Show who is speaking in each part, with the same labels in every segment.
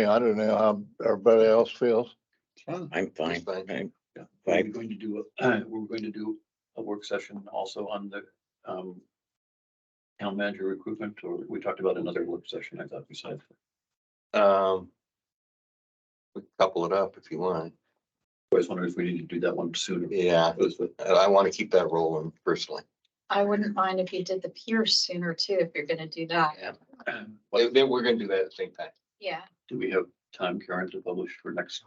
Speaker 1: Yeah, I don't know how everybody else feels.
Speaker 2: Fine.
Speaker 3: I'm fine.
Speaker 2: fine.
Speaker 3: I'm
Speaker 2: Yeah. We're
Speaker 3: fine.
Speaker 2: going to do, a- we're going to do a work session also on the um, town manager recruitment, or we talked about another work session, I thought we said.
Speaker 4: Um. we can Couple it up if you want.
Speaker 2: I was wondering if we need to do that one sooner.
Speaker 4: Yeah,
Speaker 2: Because the-
Speaker 4: I- I want to keep that rolling personally.
Speaker 5: I wouldn't mind if you did the Pierce sooner too, if you're gonna do that.
Speaker 2: What
Speaker 4: Then then we're gonna do that at the same time.
Speaker 5: Yeah,
Speaker 2: uh, Do we have time, Karen, to publish for next,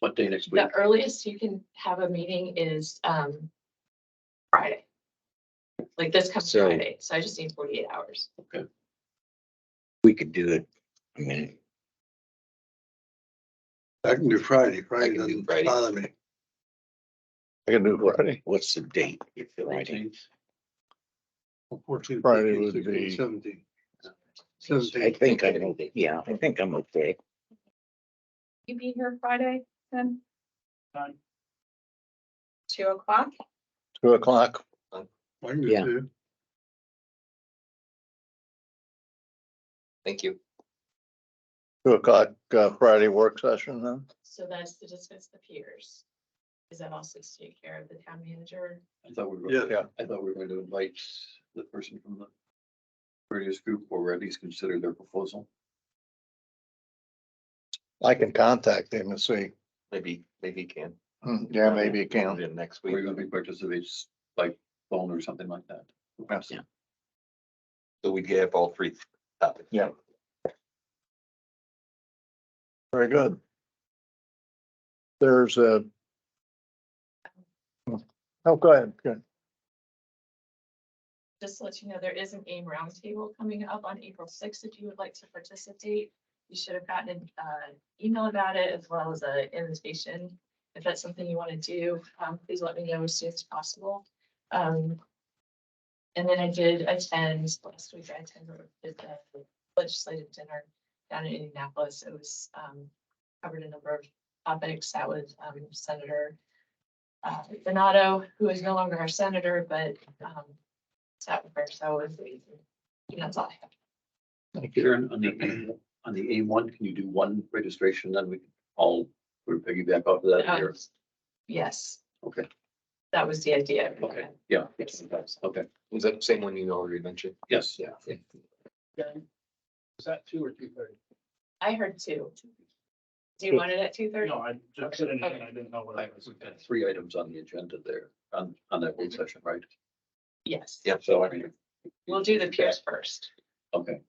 Speaker 2: what day next week?
Speaker 6: The earliest you can have a meeting is um Friday. Like this comes
Speaker 3: So-
Speaker 6: Friday, so I just need forty-eight hours.
Speaker 3: We could do it. I mean,
Speaker 7: I can do Friday, Friday
Speaker 4: can do
Speaker 7: doesn't
Speaker 4: Friday.
Speaker 7: bother me.
Speaker 1: I can do Friday.
Speaker 3: what's the date? It's Friday.
Speaker 2: 19th?
Speaker 7: Fourteen,
Speaker 1: Friday
Speaker 7: fifteen,
Speaker 1: would
Speaker 7: sixteen,
Speaker 1: be-
Speaker 7: Seventeen.
Speaker 3: I
Speaker 7: Seventeen,
Speaker 3: think I'm, okay. yeah, I think I'm okay.
Speaker 5: you be here Friday then?
Speaker 2: Fine.
Speaker 5: Two o'clock?
Speaker 1: Two o'clock.
Speaker 7: I can do
Speaker 3: Yeah.
Speaker 7: two.
Speaker 4: Thank you.
Speaker 1: Two o'clock uh, Friday work session then?
Speaker 6: So that's to discuss the peers. Is that also to take care of the town manager?
Speaker 2: I thought we were,
Speaker 7: Yeah.
Speaker 1: Yeah.
Speaker 2: I thought we were going to invite the person from the previous group, or at least consider their proposal.
Speaker 1: I can contact him and see.
Speaker 4: Maybe, maybe you can.
Speaker 1: Hmm, Yeah, maybe you
Speaker 4: Count
Speaker 1: can.
Speaker 4: it in next
Speaker 2: We're
Speaker 4: week.
Speaker 2: going to be participates by phone or something like that.
Speaker 1: Yes.
Speaker 4: So we get all three topics.
Speaker 1: Yeah. Very good. There's a. Oh, go ahead. Good.
Speaker 6: Just to let you know, there is an AIM roundtable coming up on April sixth, if you would like to participate. You should have gotten an uh, email about it as well as an invitation. If that's something you want to do, um, please let me know as soon as possible. Um, And then I did attend, last week I attended the legislative dinner down in Indianapolis. It was um, covered a number of topics. That was um, Senator uh, Donato, who is no longer our senator, but um, sat with her, so it was amazing. And That's all I have.
Speaker 2: Karen, on the, on the A one, can you do one registration, then we can all, we're piggyback off of that here?
Speaker 6: Um, Yes,
Speaker 2: Okay,
Speaker 6: that was the idea.
Speaker 2: okay, yeah,
Speaker 6: Yes.
Speaker 2: okay,
Speaker 4: Is that the same one you already mentioned?
Speaker 2: yes, yeah.
Speaker 8: Is that two or two thirty?
Speaker 6: I heard two. Do you want it at two thirty?
Speaker 8: No, I just said anything, I didn't know what
Speaker 2: I-
Speaker 8: I was.
Speaker 2: We've got three items on the agenda there, on, on that
Speaker 6: Mhm.
Speaker 2: one session, right?
Speaker 6: Yes.
Speaker 4: Yeah.
Speaker 2: So I mean.
Speaker 6: We'll do the peers first.
Speaker 2: Okay,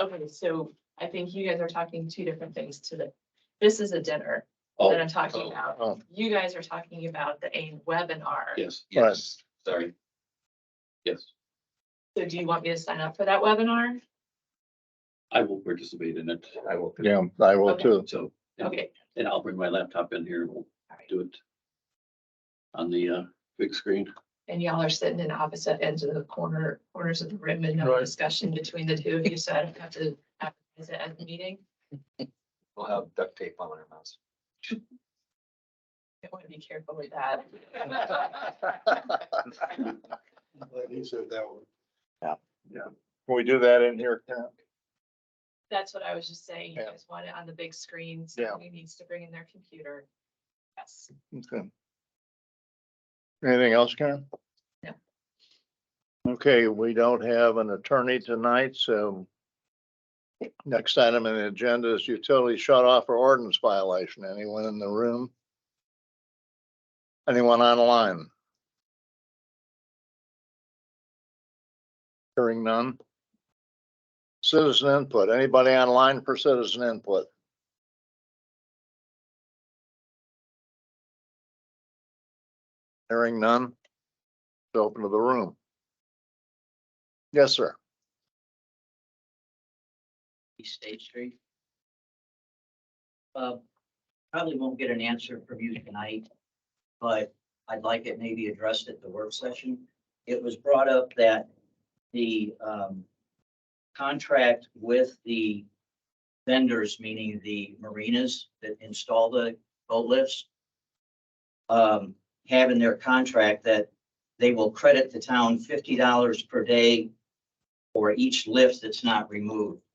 Speaker 6: Okay, so I think you guys are talking two different things to the, this is a dinner that
Speaker 2: oh,
Speaker 6: I'm talking
Speaker 4: oh,
Speaker 1: oh.
Speaker 6: about. You guys are talking about the AIM webinar.
Speaker 2: yes,
Speaker 4: Yes, sorry.
Speaker 2: sorry. Yes,
Speaker 6: So do you want me to sign up for that webinar?
Speaker 2: I will participate in it,
Speaker 4: I will.
Speaker 1: Yeah, I will
Speaker 6: Okay.
Speaker 1: too.
Speaker 2: so. and-
Speaker 6: Okay,
Speaker 2: And I'll bring my laptop in here, and we'll
Speaker 6: all right.
Speaker 2: do it on the, uh, big screen.
Speaker 6: And y'all are sitting in opposite ends of the corner, corners of the room and no discussion between the two of you, so I don't have to advertise it at the meeting.
Speaker 4: We'll have duct tape on our mouths.
Speaker 6: I want to be careful with that.
Speaker 7: I'm Glad he said that one.
Speaker 1: Can we do that in here? Karen?
Speaker 6: That's what I was just saying. You
Speaker 1: Yeah.
Speaker 6: guys want it on the big screen.
Speaker 1: Yeah.
Speaker 6: Somebody needs to bring in their computer. Yes.
Speaker 1: Okay. Anything else, Karen?
Speaker 6: No.
Speaker 1: Okay, we don't have an attorney tonight, so next item on the agenda is utility shut off or ordinance violation. Anyone in the room? Anyone online? Hearing none. Citizen input. Anybody online for citizen input? Hearing none. It's open to the room. Yes, sir.
Speaker 9: East State Street. Uh, Probably won't get an answer from you tonight, but I'd like it maybe addressed at the work session. It was brought up that the um, contract with the vendors, meaning the marinas that install the boat lifts, um, have in their contract that they will credit the town fifty dollars per day or each lift that's not removed.